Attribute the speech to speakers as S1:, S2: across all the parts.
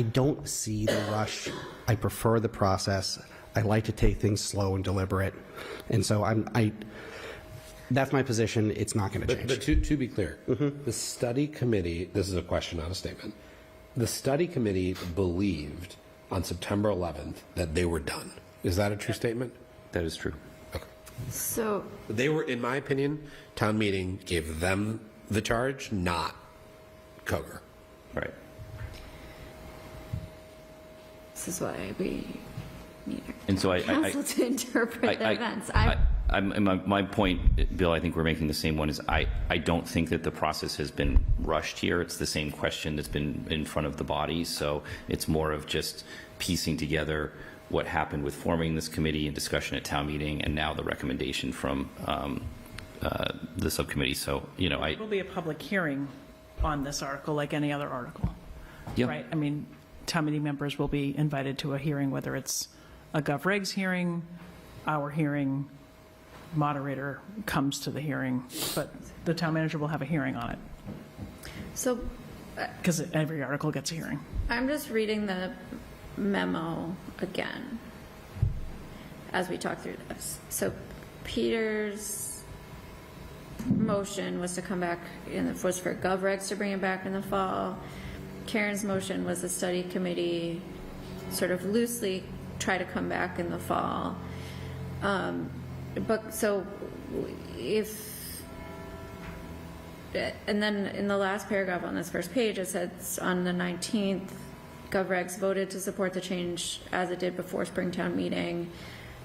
S1: I don't see the rush. I prefer the process. I like to take things slow and deliberate. And so I'm, I, that's my position. It's not going to
S2: But, but
S1: change.
S2: to, to be clear, the study committee, this is a question, not a statement. The study committee believed on September 11th that they were done. Is that a true statement?
S3: That is true.
S4: So,
S2: They were, in my opinion, town meeting gave them the charge, not Coger.
S3: Right.
S4: this is why we need our
S3: And so I- I- I-
S4: council to interpret the events. I,
S3: I- I'm- and my, my point, Bill, I think we're making the same one, is I, I don't think that the process has been rushed here. It's the same question that's been in front of the body, so it's more of just piecing together what happened with forming this committee and discussion at town meeting, and now the recommendation from um, uh, the subcommittee. So, you know, I,
S5: Will be a public hearing on this article, like any other article,
S3: yeah,
S5: right? I mean, town meeting members will be invited to a hearing, whether it's a GovRegs hearing, our hearing, moderator comes to the hearing, but the town manager will have a hearing on it,
S4: so
S5: because every article gets a hearing.
S4: I'm just reading the memo again as we talk through this. So Peter's motion was to come back in the, was for GovRegs to bring it back in the fall. Karen's motion was the study committee sort of loosely try to come back in the fall. Um, But, so if and then in the last paragraph on this first page, it says on the 19th, GovRegs voted to support the change as it did before Springtown meeting,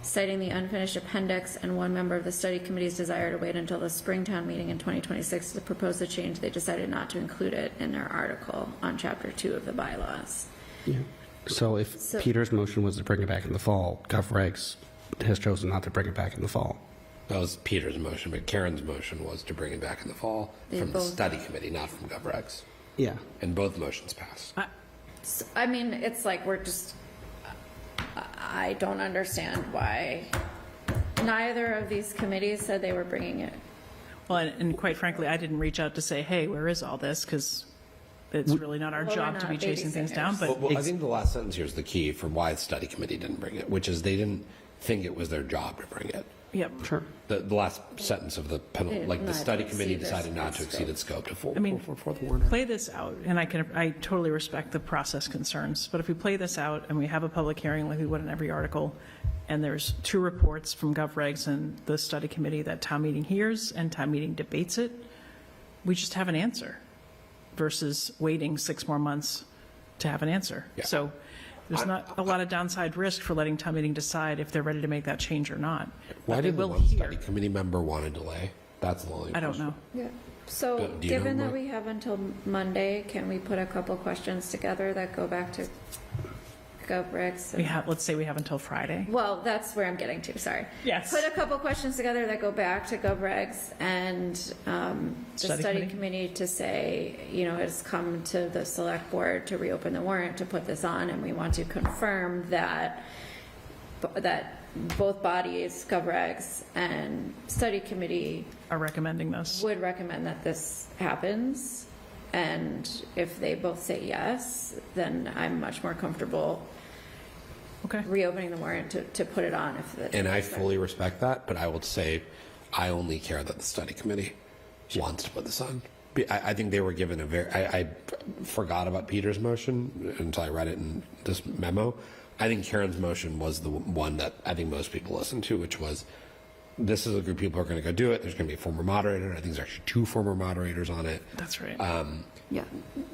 S4: citing the unfinished appendix and one member of the study committee's desire to wait until the Springtown meeting in 2026 to propose the change. They decided not to include it in their article on chapter two of the bylaws.
S1: So if
S4: So-
S1: Peter's motion was to bring it back in the fall, GovRegs has chosen not to bring it back in the fall.
S2: That was Peter's motion, but Karen's motion was to bring it back in the fall
S4: They
S2: from the
S4: both-
S2: study committee, not from GovRegs.
S1: Yeah.
S2: And both motions passed.
S4: So, I mean, it's like we're just, I I don't understand why neither of these committees said they were bringing it
S5: Well, and and quite frankly, I didn't reach out to say, hey, where is all this? Because it's really not our
S4: Well, we're
S5: job to
S4: not
S5: be chasing things down,
S4: babysitters.
S5: but
S2: Well, well, I think the last sentence here is the key for why the study committee didn't bring it, which is they didn't think it was their job to bring it.
S5: Yep.
S1: Sure.
S2: The, the last sentence of the
S4: They
S2: penalty,
S4: did
S2: like the
S4: not
S2: study
S4: exceed
S2: committee
S4: their
S2: decided not to
S4: scope.
S2: exceed its scope to full,
S5: I mean-
S2: for, for the warrant.
S5: Play this out, and I can, I totally respect the process concerns, but if we play this out and we have a public hearing like we would in every article, and there's two reports from GovRegs and the study committee that town meeting hears and town meeting debates it, we just have an answer versus waiting six more months to have an answer.
S2: Yeah.
S5: So there's not a lot of downside risk for letting town meeting decide if they're ready to make that change or not.
S2: Why
S5: But they
S2: did the
S5: will
S2: one
S5: hear.
S2: study committee member want to delay? That's the only.
S5: I don't know.
S4: Yeah, so
S2: Do- do you know
S4: given that
S2: what-
S4: we have until Monday, can we put a couple questions together that go back to GovRegs?
S5: We
S4: and-
S5: have, let's say we have until Friday.
S4: Well, that's where I'm getting to, sorry.
S5: Yes.
S4: Put a couple questions together that go back to GovRegs and um, the
S5: Study
S4: study
S5: committee?
S4: committee to say, you know, it's come to the select board to reopen the warrant to put this on, and we want to confirm that, that both bodies, GovRegs and study committee,
S5: Are recommending this.
S4: would recommend that this happens, and if they both say yes, then I'm much more comfortable
S5: Okay.
S4: reopening the warrant to, to put it on if the.
S2: And I fully respect that, but I will say, I only care that the study committee wants to put this on. Be- I, I think they were given a very, I, I forgot about Peter's motion until I read it in this memo. I think Karen's motion was the one that I think most people listened to, which was, this is a group of people who are going to go do it. There's going to be a former moderator. I think there's actually two former moderators on it,
S5: That's right.
S4: Yeah,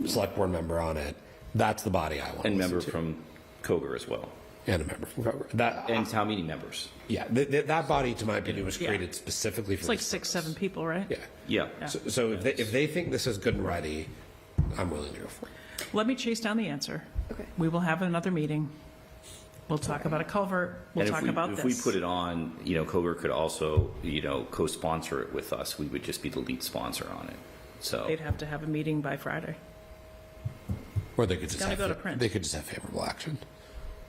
S2: select board member on it. That's the body I want.
S3: and
S2: to listen
S3: member
S2: to.
S3: from Coger as well,
S2: and a member from Kroger. That
S3: and town meeting members.
S2: yeah, th- th- that body, to my opinion, was
S5: Yeah.
S2: created specifically for
S5: It's like
S2: this
S5: six,
S2: purpose.
S5: seven people, right?
S2: Yeah.
S3: Yeah.
S2: So, so if they, if they think this is good and ready, I'm willing to go for it.
S5: Let me chase down the answer.
S4: Okay.
S5: We will have another meeting. We'll talk about a culvert. We'll
S3: And if
S5: talk
S3: we-
S5: about
S3: If we
S5: this.
S3: put it on, you know, Coger could also, you know, co-sponsor it with us. We would just be the lead sponsor on it. So,
S5: They'd have to have a meeting by Friday.
S2: Or they could just
S5: gotta
S2: have,
S5: go to
S2: fa-
S5: print.
S2: they could just have favorable action.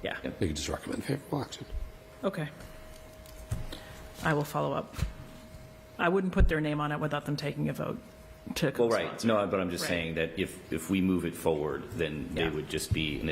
S5: Yeah.
S2: They could just recommend favorable action.
S5: Okay. I will follow up. I wouldn't put their name on it without them taking a vote to
S3: well, right,
S5: co-sponsor.
S3: no, but I'm just
S5: Right.
S3: saying that if, if we move it forward, then they
S5: Yeah.
S3: would just be an